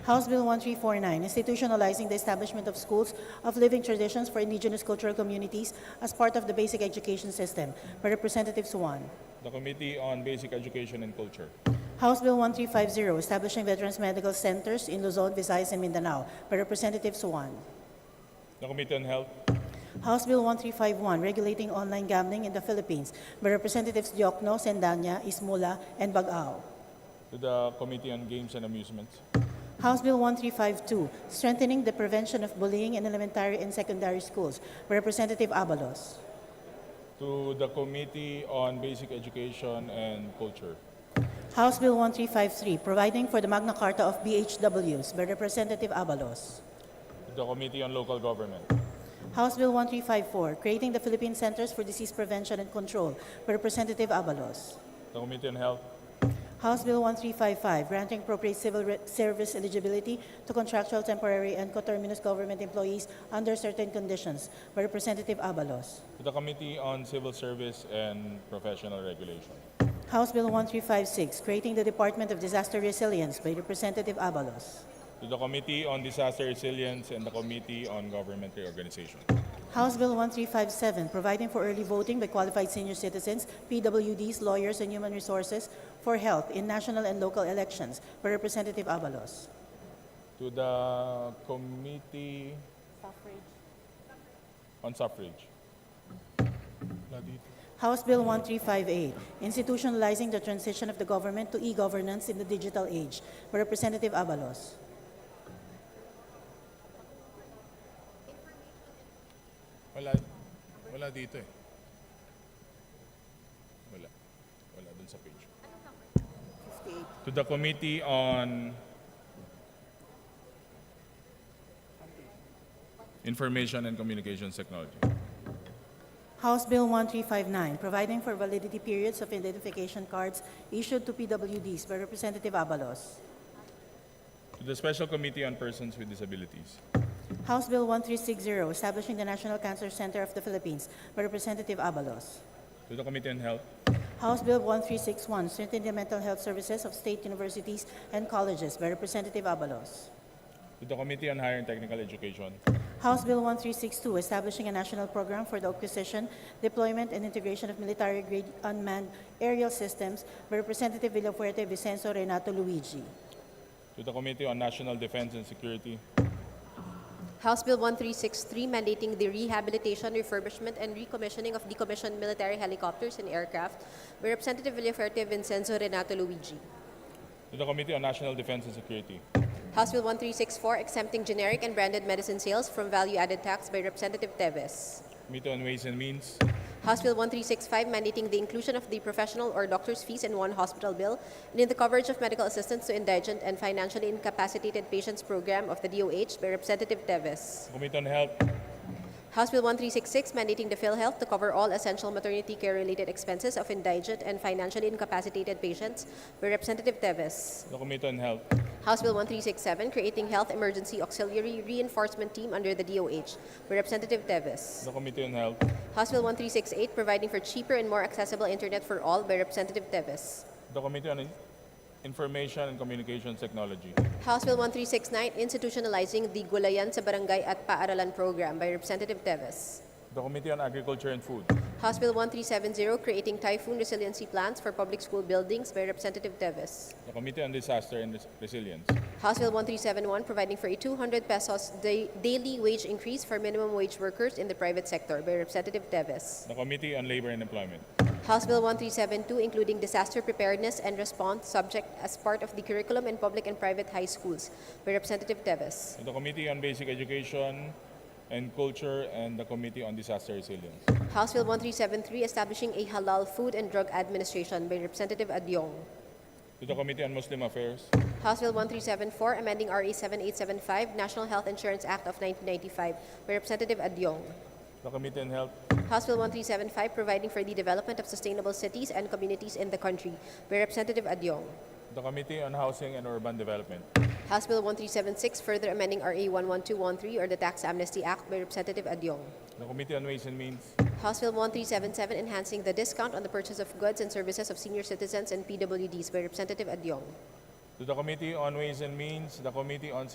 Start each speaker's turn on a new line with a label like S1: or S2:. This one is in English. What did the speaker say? S1: House Bill 1349, institutionalizing the establishment of schools of living traditions for indigenous cultural communities as part of the basic education system by Representative Suwan.
S2: The Committee on Basic Education and Culture.
S1: House Bill 1350, establishing veterans medical centers in Luzon, Visayas, and Mindanao by Representative Suwan.
S2: The Committee on Health.
S1: House Bill 1351, regulating online gambling in the Philippines by Representatives Diokno, Sendanya, Ismula, and Bagao.
S2: To the Committee on Games and Amusements.
S1: House Bill 1352, strengthening the prevention of bullying in elementary and secondary schools by Representative Abalos.
S2: To the Committee on Basic Education and Culture.
S1: House Bill 1353, providing for the Magna Carta of BHWs by Representative Abalos.
S2: To the Committee on Local Government.
S1: House Bill 1354, creating the Philippine Centers for Disease Prevention and Control by Representative Abalos.
S2: The Committee on Health.
S1: House Bill 1355, granting appropriate civil re- service eligibility to contractual temporary and coterminous government employees under certain conditions by Representative Abalos.
S2: To the Committee on Civil Service and Professional Regulation.
S1: House Bill 1356, creating the Department of Disaster Resilience by Representative Abalos.
S2: To the Committee on Disaster Resilience and the Committee on Government Reorganization.
S1: House Bill 1357, providing for early voting by qualified senior citizens, PWDs, lawyers, and human resources for health in national and local elections by Representative Abalos.
S2: To the Committee on Suffrage.
S1: House Bill 1358, institutionalizing the transition of the government to e-governance in the digital age by Representative Abalos.
S2: Wala, wala dito eh. Wala. Wala dun sa page. To the Committee on Information and Communications Technology.
S1: House Bill 1359, providing for validity periods of identification cards issued to PWDs by Representative Abalos.
S2: To the Special Committee on Persons with Disabilities.
S1: House Bill 1360, establishing the National Cancer Center of the Philippines by Representative Abalos.
S2: To the Committee on Health.
S1: House Bill 1361, strengthening the mental health services of state universities and colleges by Representative Abalos.
S2: To the Committee on Higher and Technical Education.
S1: House Bill 1362, establishing a national program for the acquisition, deployment, and integration of military-grade unmanned aerial systems by Representative Villafuerte Vicenzo Renato Luigi.
S2: To the Committee on National Defense and Security.
S3: House Bill 1363 mandating the rehabilitation, refurbishment, and recommissioning of decommissioned military helicopters and aircraft by Representative Villaferte Vincenzo Renato Luigi.
S2: To the Committee on National Defense and Security.
S3: House Bill 1364 exempting generic and branded medicine sales from value-added tax by Representative Teves.
S2: Committee on Ways and Means.
S3: House Bill 1365 mandating the inclusion of the professional or doctor's fees in one hospital bill and in the coverage of medical assistance to indigent and financially incapacitated patients program of the DOH by Representative Teves.
S2: Committee on Health.
S3: House Bill 1366 mandating the PhilHealth to cover all essential maternity care related expenses of indigent and financially incapacitated patients by Representative Teves.
S2: To the Committee on Health.
S3: House Bill 1367 creating Health Emergency Auxiliary Reinforcement Team under the DOH by
S2: To
S3: Representative Teves.
S2: the Committee on Health.
S3: House Bill 1368 providing for cheaper and more accessible internet for all by Representative Teves.
S2: The Committee on Information and Communications Technology.
S3: House Bill 1369 institutionalizing the Gulayan sa Barangay at Paaralan program by Representative Teves.
S2: The Committee on Agriculture and Food.
S3: House Bill 1370, creating typhoon resiliency plans for public school buildings by Representative Teves.
S2: The Committee on Disaster and Res- Resilience.
S3: House Bill 1371, providing for a 200 pesos da- daily wage increase for minimum wage workers in the private sector by Representative Teves.
S2: The Committee on Labor and Employment.
S3: House Bill 1372, including disaster preparedness and response subject as part of the curriculum in public and private high schools by Representative Teves.
S2: The Committee on Basic Education and Culture and the Committee on Disaster Resilience.
S3: House Bill 1373, establishing a halal food and drug administration by Representative Adyong.
S2: To the Committee on Muslim Affairs.
S3: House Bill 1374, amending E RA 7875, National Health Insurance Act of 1995, by Representative Adyong.
S2: The Committee on Health.
S3: House Bill 1375, providing for the development of sustainable cities and communities in the country, by Representative Adyong.
S2: The Committee on Housing and Urban Development.
S3: House Bill 1376, further amending E RA 11213, or the Tax Amnesty Act, by Representative Adyong.
S2: The Committee on Ways and Means.
S3: House Bill 1377, enhancing the discount on the purchase of goods and services of senior citizens and PWDs, by Representative Adyong.
S2: To to the Committee on Ways and Means, the Committee on